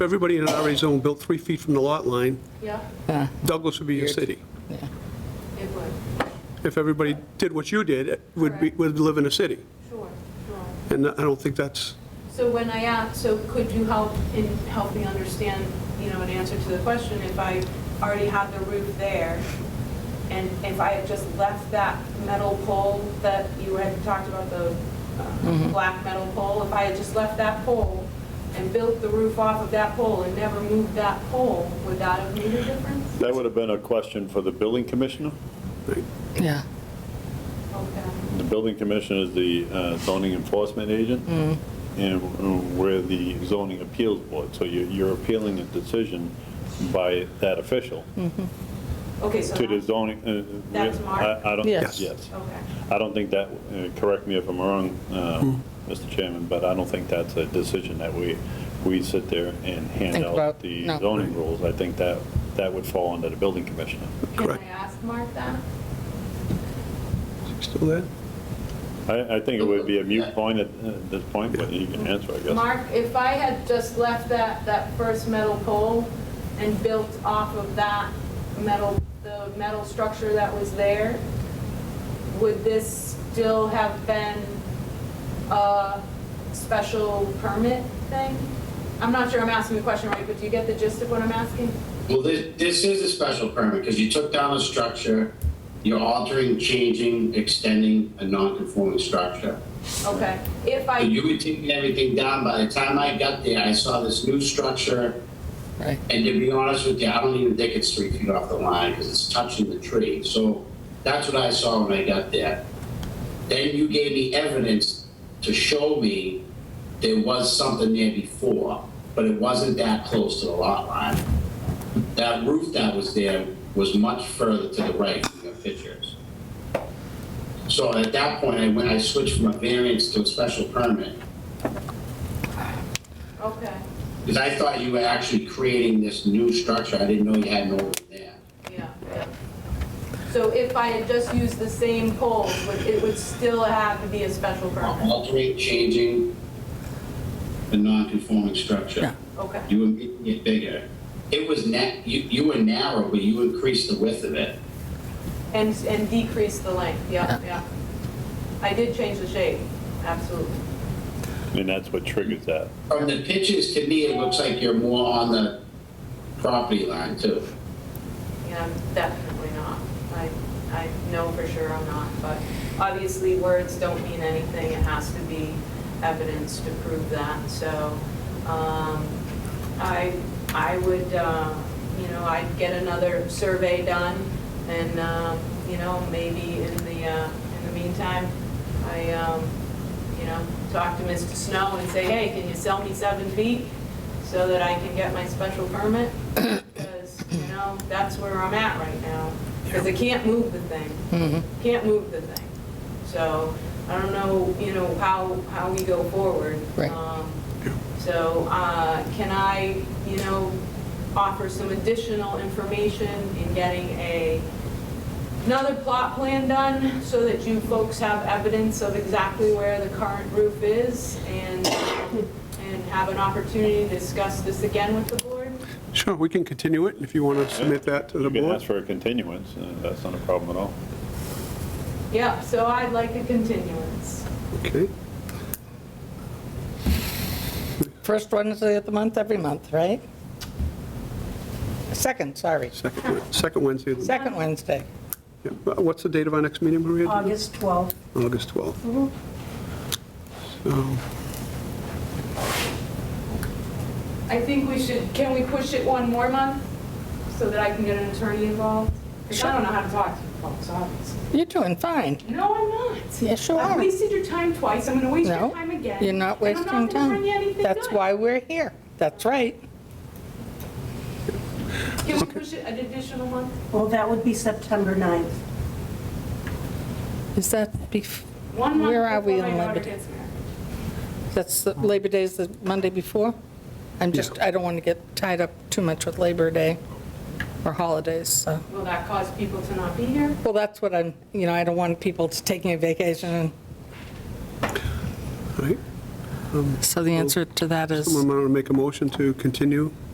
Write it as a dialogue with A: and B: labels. A: Everybody in an RA zone built three feet from the lot line,
B: Yeah,
C: Yeah,
A: Douglas would be a city.
C: yeah.
B: it would,
A: If everybody did what you did, it would be, would live in a city.
B: sure, sure.
A: And I don't think that's,
B: So when I asked, so could you help in, help me understand, you know, an answer to the question, if I already had the roof there, and if I had just left that metal pole that you had talked about, the uh, black metal pole, if I had just left that pole and built the roof off of that pole and never moved that pole, would that have made a difference?
D: That would have been a question for the building commissioner.
C: Yeah,
B: Okay.
D: The building commissioner is the uh, zoning enforcement agent,
C: Mm-hmm.
D: and uh, we're the zoning appeals board, so you- you're appealing a decision by that official
B: Okay, so
D: to the
B: that,
D: zoning. uh,
B: That's
D: I-
B: Mark?
D: I don't,
C: Mm-hmm. Yes.
D: yes.
B: okay.
D: I don't think that, uh, correct me if I'm wrong, uh, Mr. Chairman, but I don't think that's a decision that we, we sit there and hand
C: Think about-
D: out the
C: no.
D: zoning rules. I think that, that would fall under the building commissioner.
B: Can I
A: Correct.
B: ask Mark that?
A: still there?
D: I, I think it would be a mute point at uh, this point, but you can answer, I guess.
B: Mark, if I had just left that, that first metal pole and built off of that metal, the metal structure that was there, would this still have been a special permit thing? I'm not sure I'm asking the question right, but do you get the gist of what I'm asking?
E: Well, this, this is a special permit because you took down a structure, you're altering, changing, extending a non-conforming structure.
B: Okay, if
E: So
B: I,
E: You were taking everything down. By the time I got there, I saw this new structure.
C: right.
E: And to be honest with you, I don't even think it's three feet off the line because it's touching the tree. So that's what I saw when I got there. Then you gave me evidence to show me there was something there before, but it wasn't that close to the lot line. That roof that was there was much further to the right in your pictures. So at that point, I went, I switched from a variance to a special permit.
B: okay,
E: Because I thought you were actually creating this new structure, I didn't know you had an over there.
B: yeah. yeah. So if I had just used the same pole, would- it would still have to be a special permit?
E: Altering, changing the non-conforming structure.
B: Okay.
E: You were making it bigger. It was net, you, you were narrow, but you increased the width of it.
B: And, and decrease the length, yeah, yeah. I did change the shape, absolutely.
D: And that's what triggers that.
E: From the pictures, to me, it looks like you're more on the property line too.
B: And I'm definitely not. I, I know for sure I'm not, but obviously words don't mean anything. It has to be evidence to prove that, so, um, I, I would, uh, you know, I'd get another survey done and, um, you know, maybe in the, uh, in the meantime, I, um, you know, talk to Mr. Snow and say, hey, can you sell me seven feet so that I can get my special permit? Because, you know, that's where I'm at right now, because I can't move the thing. Can't move the thing. So I don't know, you know, how, how we go forward.
C: Right.
B: Um, So uh, can I, you know, offer some additional information in getting a, another plot plan done so that you folks have evidence of exactly where the current roof is and, and have an opportunity to discuss this again with the board?
A: Sure, we can continue it if you want to submit that to the
D: You can
A: board.
D: ask for a continuance, uh, that's not a problem at all.
B: Yeah, so I'd like a continuance.
A: Okay,
C: First Wednesday of the month, every month, right? Second, sorry.
A: second, Wed- second Wednesday. of the-
C: Second Wednesday.
A: yeah. What's the date of our next meeting, Maria?
F: August 12th.
A: August 12th. So,
B: I think we should, can we push it one more month so that I can get an attorney involved? Because I don't know how to talk to you folks, obviously.
C: You're doing fine.
B: No, I'm not.
C: Yes, you
B: I've
C: are.
B: wasted your time twice, I'm gonna waste your
C: No,
B: time again.
C: you're not
B: and
C: wasting
B: I'm not gonna bring you
C: time.
B: anything
C: That's
B: good.
C: why we're here. That's right.
B: Can we push it an additional month?
F: Well, that would be September 9th.
C: Is that bef,
B: One month
C: Where are we
B: before
C: on
B: my daughter
C: Labor Day?
B: gets married.
C: that's the- Labor Day's the Monday before? I'm just, I don't want to get tied up too much with Labor Day or holidays, so.
B: Will that cause people to not be here?
C: Well, that's what I'm, you know, I don't want people to taking a vacation and
A: all right.
C: So the answer to that is.
A: Someone want to make a motion to continue?